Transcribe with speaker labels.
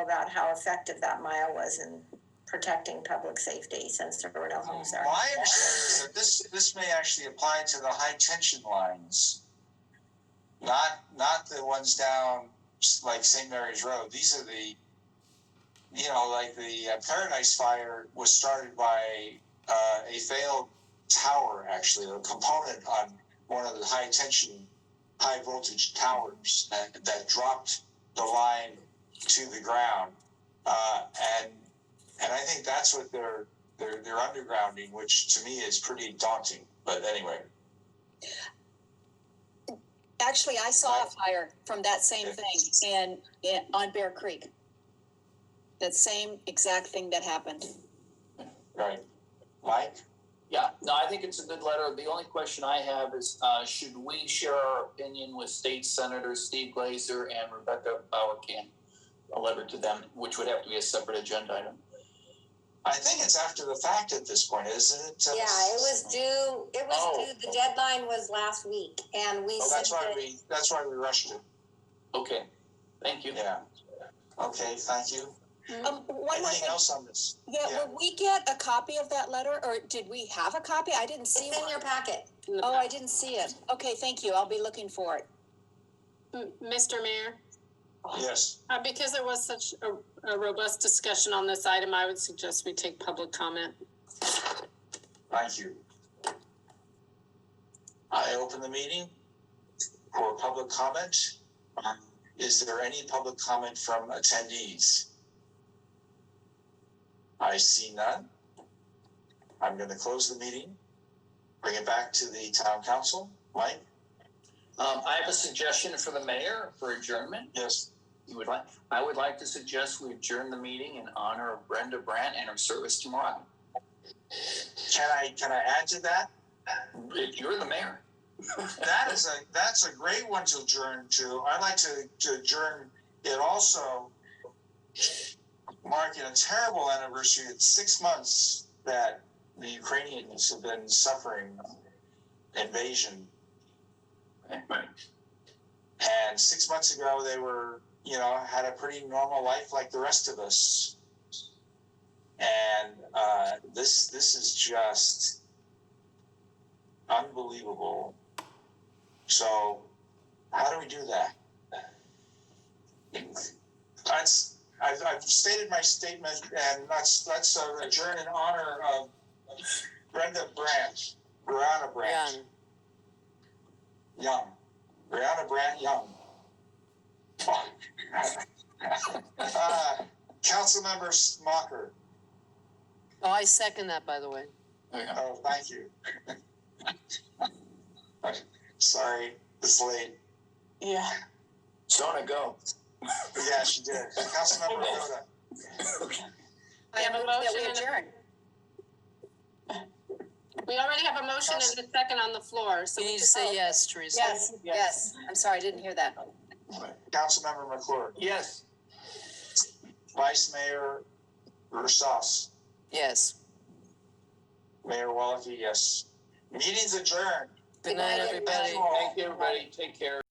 Speaker 1: about how effective that mile was in protecting public safety since there were no homes there.
Speaker 2: My understanding is that this, this may actually apply to the high tension lines. Not, not the ones down like St. Mary's Road. These are the, you know, like the uh, Paradise Fire was started by uh, a failed tower, actually, a component on one of the high tension, high voltage towers that, that dropped the line to the ground. Uh, and, and I think that's what they're, they're they're undergrounding, which to me is pretty daunting. But anyway,
Speaker 3: Actually, I saw a fire from that same thing in, in on Bear Creek. That same exact thing that happened.
Speaker 2: right, Mike,
Speaker 4: Yeah, no, I think it's a good letter. The only question I have is, uh, should we share our opinion with State Senators Steve Glazer and Rebecca Bauercan? A letter to them, which would have to be a separate agenda item.
Speaker 2: I think it's after the fact at this point, isn't it?
Speaker 5: Yeah, it was due, it
Speaker 2: Oh.
Speaker 5: was due, the deadline was last week and we
Speaker 2: Oh, that's why
Speaker 5: sent it.
Speaker 2: we that's why we rushed it.
Speaker 4: Okay, thank you.
Speaker 2: Yeah. Okay, thank you.
Speaker 3: Um, one more
Speaker 2: Anything
Speaker 3: thing.
Speaker 2: else on this? yeah.
Speaker 3: Yeah, will we get a copy of that letter or did we have a copy? I didn't see
Speaker 5: It's in
Speaker 3: one.
Speaker 5: your packet.
Speaker 3: Oh, I didn't see it. Okay, thank you. I'll be looking for it.
Speaker 6: M- Mr. Mayor,
Speaker 2: Yes.
Speaker 6: uh, because there was such a, a robust discussion on this item, I would suggest we take public comment.
Speaker 2: Thank you. I open the meeting for public comment. Um, Is there any public comment from attendees? I see none. I'm going to close the meeting, bring it back to the town council. Mike?
Speaker 4: Um, I have a suggestion for the mayor for adjournment.
Speaker 2: Yes.
Speaker 4: You would like, I would like to suggest we adjourn the meeting in honor of Brenda Brandt and her service to Marvin.
Speaker 2: Can I, can I add to that?
Speaker 4: If you're the mayor.
Speaker 2: That is a, that's a great one to adjourn to. I'd like to, to adjourn it also marking a terrible anniversary. It's six months that the Ukrainians have been suffering invasion.
Speaker 4: Right.
Speaker 2: And six months ago, they were, you know, had a pretty normal life like the rest of us. And uh, this this is just unbelievable. So, how do we do that? That's I've, I've stated my statement, and let's let's uh, adjourn in honor of Brenda Branch, Brianna Branch, Young. Brianna Brandt Young. uh, Councilmember Smocker.
Speaker 7: Oh, I second that, by the way.
Speaker 4: There you go.
Speaker 2: Oh, thank you. Sorry, it's late.
Speaker 7: Yeah.
Speaker 4: Donna, go.
Speaker 2: Yeah, she did. Councilmember Rhoda.
Speaker 6: We have a
Speaker 3: That
Speaker 6: motion
Speaker 3: we
Speaker 6: and a-
Speaker 3: adjourn.
Speaker 6: We already have a motion and a second on the floor, so
Speaker 7: You
Speaker 6: we
Speaker 7: need to
Speaker 6: just,
Speaker 7: say yes, Teresa.
Speaker 3: Yes, yes. I'm sorry, I didn't hear that.
Speaker 2: Councilmember McClure.
Speaker 4: Yes.
Speaker 2: Vice Mayor Russos.
Speaker 7: Yes.
Speaker 2: Mayor Walke, yes. Meeting's adjourned.
Speaker 7: Good night,
Speaker 2: Thank
Speaker 7: everybody.
Speaker 2: you all.
Speaker 4: Thank you, everybody. Take care.